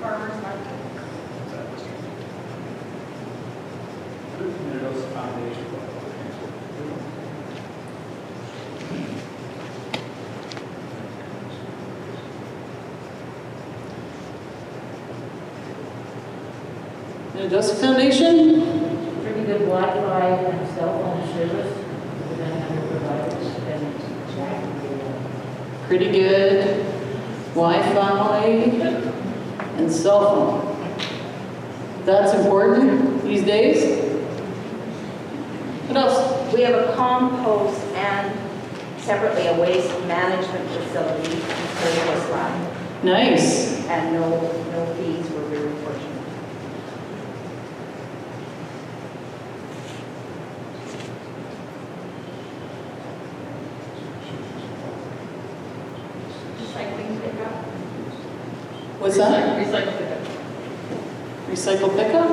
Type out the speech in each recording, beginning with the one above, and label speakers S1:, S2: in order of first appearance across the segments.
S1: farmer's market.
S2: Who committed those foundations?
S3: And Justice Foundation?
S4: Pretty good Wi-Fi and cell phone service, we're gonna have to provide this and Jack will,
S3: pretty good Wi-Fi and cell phone. That's important these days. What else?
S1: We have a compost and separately a waste management facility in Curtis Line,
S3: Nice.
S1: and no, no fees, we're very fortunate. Recycling pickup?
S3: What's that?
S1: Recycling pickup.
S3: Recycle pickup?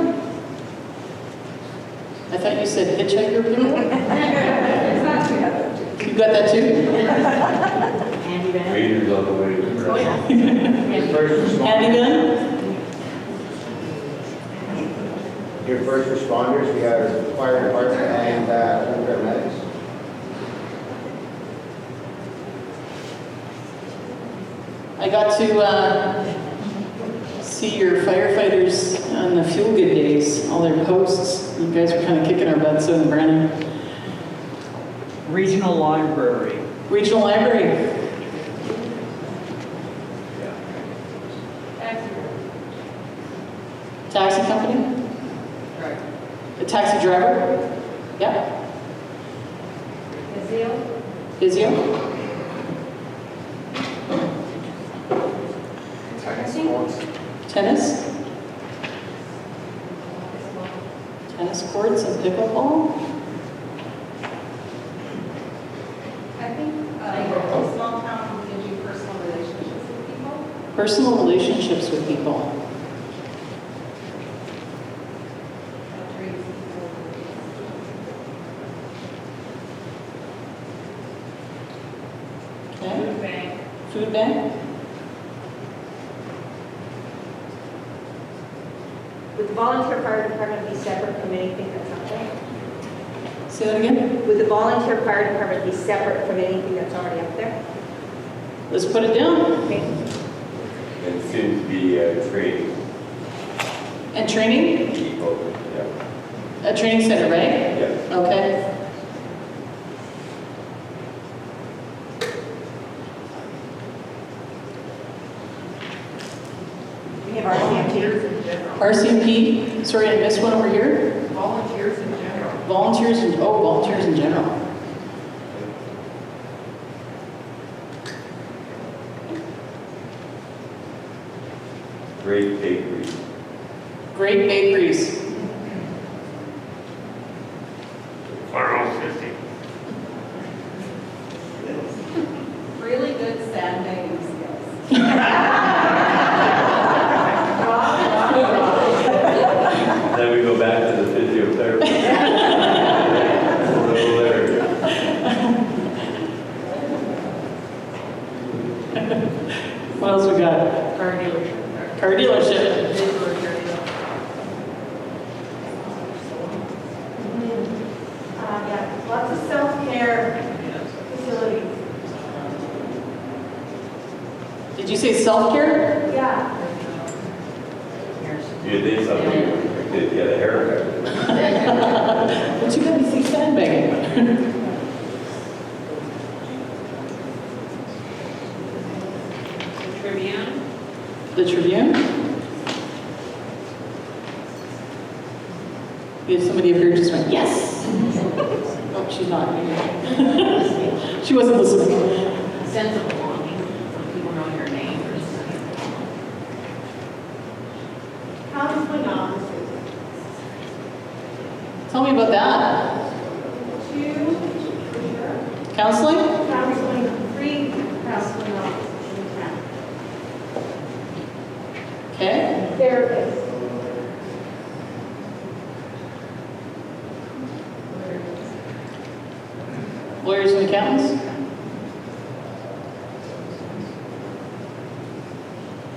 S3: I thought you said hitchhiker pickup?
S1: It's not too bad.
S3: You got that too?
S4: Andy Van.
S5: Readers on the way to the
S3: Oh, yeah.
S5: Your first
S3: Handy
S5: responders,
S3: gun?
S5: your first responders, we have fire department and uh, paramedics.
S3: I got to uh, see your firefighters on the fuel good days, all their posts. You guys were kind of kicking our butts in Brandon.
S6: Regional Library.
S3: Regional Library. Taxi company? A taxi driver? Yep. Physio? Tennis? Tennis courts and pickleball?
S1: I think uh, small town gives you personal relationships with people.
S3: Personal relationships with people.
S1: That treats people.
S3: Food bank. Food bank?
S1: Would the volunteer fire department be separate from anything that's up
S3: Say that again?
S1: there? Would the volunteer fire department be separate from anything that's already up there?
S3: Let's put it down.
S1: Okay.
S5: And soon to be uh, training
S3: And training?
S5: people, yeah,
S3: A training center, right?
S5: yeah.
S3: Okay.
S1: We have RCMP.
S3: RCMP, sorry, I missed one over here. Volunteers in general. Volunteers, in- oh, volunteers in general.
S5: Great bakery.
S3: Great bakeries.
S7: Plural fifty.
S1: Really good sand digging skills.
S5: Then we go back to the physiotherapy. A little later.
S3: What else we got?
S4: Car dealership.
S3: Car dealership.
S1: Uh, Yeah, lots of self-care facilities.
S3: Did you say self-care?
S1: Yeah.
S5: You did something, you did get a haircut.
S3: But you got me see sandbagging.
S4: Tribune.
S3: The Tribune? If somebody up here just went, yes. Oh, she's not. She wasn't listening.
S4: Sense of belonging, when people know your name or something.
S1: How's my mom?
S3: Tell me about that.
S1: Two,
S3: Counseling?
S1: counseling, three counseling officers in town.
S3: Okay.
S1: therapist.
S3: Lawyers and accountants?